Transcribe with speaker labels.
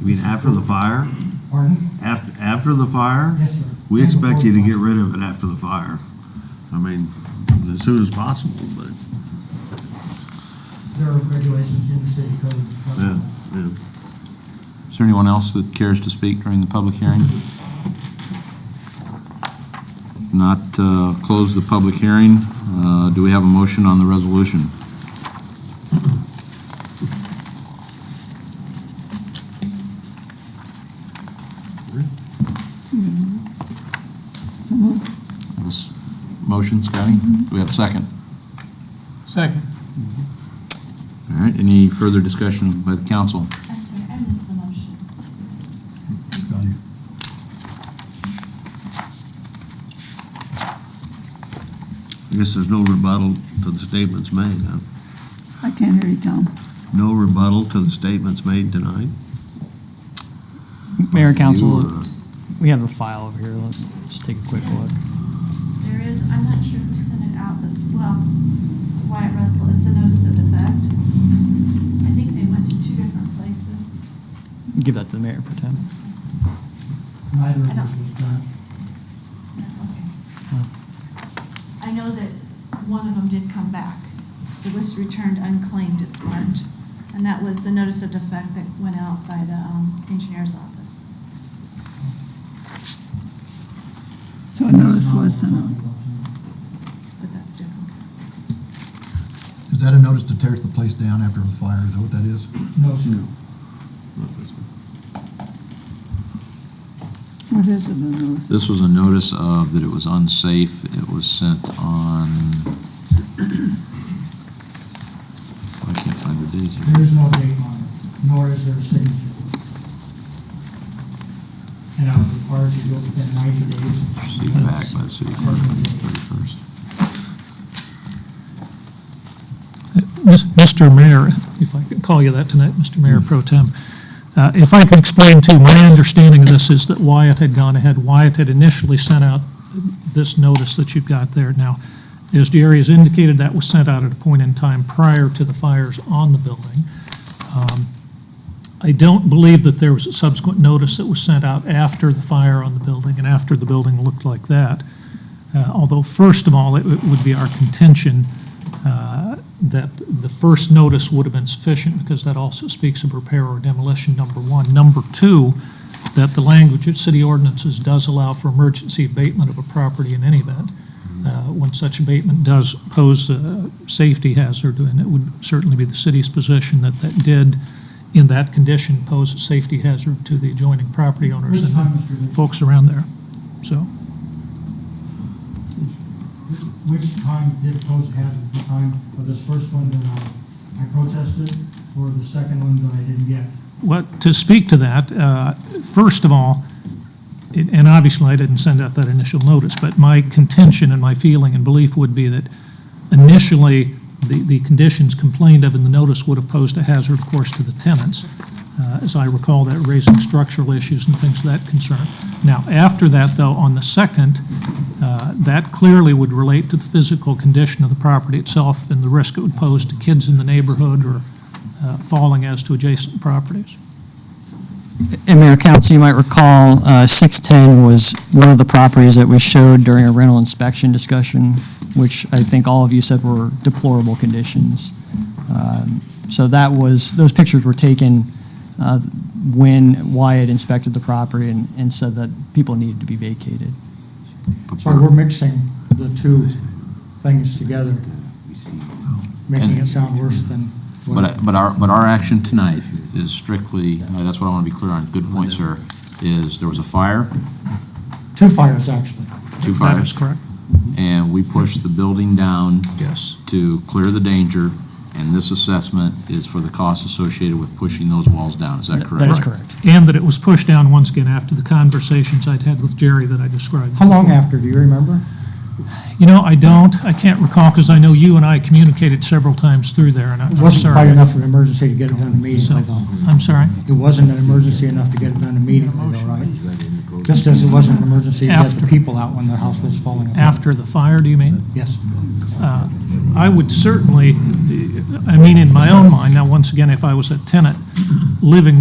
Speaker 1: You mean after the fire?
Speaker 2: Pardon?
Speaker 1: After, after the fire?
Speaker 2: Yes, sir.
Speaker 1: We
Speaker 2: And
Speaker 1: expect
Speaker 2: before
Speaker 1: you to
Speaker 2: the
Speaker 1: get rid of it after the fire. I mean, as soon as possible, but,
Speaker 2: There are regulations in the city code.
Speaker 1: yeah, yeah.
Speaker 3: Is there anyone else that cares to speak during the public hearing? Not uh, close the public hearing. Uh, Do we have a motion on the resolution? This Motion, Scotty? Do we have a second?
Speaker 4: Second.
Speaker 3: All right, any further discussion by the council?
Speaker 5: I'm sorry, I missed the motion.
Speaker 1: I guess there's no rebuttal to the statements made, huh?
Speaker 6: I can't hear you, Tom.
Speaker 1: No rebuttal to the statements made tonight?
Speaker 4: Mayor,
Speaker 1: You,
Speaker 4: council,
Speaker 1: uh,
Speaker 4: we have a file over here. Let's just take a quick look.
Speaker 5: There is, I'm not sure who sent it out, but, well, Wyatt Russell, it's a notice of defect. I think they went to two different places.
Speaker 4: Give that to the mayor, pretend.
Speaker 2: Neither of us was done.
Speaker 5: I know that one of them did come back. It was returned unclaimed, it's marked. And that was the notice of defect that went out by the um, engineer's office.
Speaker 6: So a notice was sent out.
Speaker 5: But that's different.
Speaker 7: Is that a notice to tear the place down after the fire? Is that what that is?
Speaker 2: No, sir.
Speaker 6: What is it, a notice?
Speaker 3: This was a notice of that it was unsafe. It was sent on, I can't find the date
Speaker 2: There
Speaker 3: here.
Speaker 2: is no date on it, nor is there a signature. And I was required to do it within ninety days.
Speaker 3: Received back by the city clerk on the 31st.
Speaker 8: Mr. Mayor, if I could call you that tonight, Mr. Mayor Pro Tem, uh, if I can explain to, you, my understanding of this is that Wyatt had gone ahead, Wyatt had initially sent out this notice that you've got there. Now, as Jerry has indicated, that was sent out at a point in time prior to the fires on the building. Um, I don't believe that there was a subsequent notice that was sent out after the fire on the building and after the building looked like that. Uh, Although, first of all, it it would be our contention uh, that the first notice would have been sufficient because that also speaks of repair or demolition, number one. Number two, that the language of city ordinances does allow for emergency abatement of a property in any event, uh, when such abatement does pose a safety hazard, and it would certainly be the city's position that that did, in that condition, pose a safety hazard to the adjoining property owners
Speaker 2: This
Speaker 8: and
Speaker 2: time, Mr.
Speaker 8: the
Speaker 2: Lee,
Speaker 8: folks around there, so.
Speaker 2: which time did it pose a hazard, the time of this first one that I, I protested, or the second one that I didn't get?
Speaker 8: What, to speak to that, uh, first of all, it- and obviously I didn't send out that initial notice, but my contention and my feeling and belief would be that initially, the, the conditions complained of in the notice would have posed a hazard, of course, to the tenants. Uh, As I recall, that raising structural issues and things of that concern. Now, after that, though, on the second, uh, that clearly would relate to the physical condition of the property itself and the risk it would pose to kids in the neighborhood or uh, falling as to adjacent properties.
Speaker 9: And Mayor Council, you might recall, uh, 610 was one of the properties that we showed during a rental inspection discussion, which I think all of you said were deplorable conditions. Um, So that was, those pictures were taken uh, when Wyatt inspected the property and and said that people needed to be vacated.
Speaker 2: Sorry, we're mixing the two things together, making it sound worse than what.
Speaker 3: But, but our, but our action tonight is strictly, uh, that's what I want to be clear on, good point, sir, is there was a fire,
Speaker 2: Two fires, actually.
Speaker 3: two
Speaker 8: That
Speaker 3: fires,
Speaker 8: is correct,
Speaker 3: and we pushed the building down
Speaker 8: yes.
Speaker 3: to clear the danger, and this assessment is for the costs associated with pushing those walls down, is that correct?
Speaker 9: That is correct.
Speaker 8: And that it was pushed down once again after the conversations I'd had with Jerry that I described.
Speaker 2: How long after, do you remember?
Speaker 8: You know, I don't, I can't recall, because I know you and I communicated several times through there, and I-
Speaker 2: It
Speaker 8: I'm
Speaker 2: wasn't quite
Speaker 8: sorry.
Speaker 2: enough of an emergency to get it done immediately,
Speaker 8: So-
Speaker 2: though.
Speaker 8: I'm sorry.
Speaker 2: It wasn't an emergency enough to get it done immediately, though, right? Just as it wasn't an emergency to get
Speaker 8: After.
Speaker 2: the people out when their house was falling apart.
Speaker 8: After the fire, do you mean? Uh,
Speaker 2: Yes.
Speaker 8: I would certainly, I mean, in my own mind, now, once again, if I was a tenant living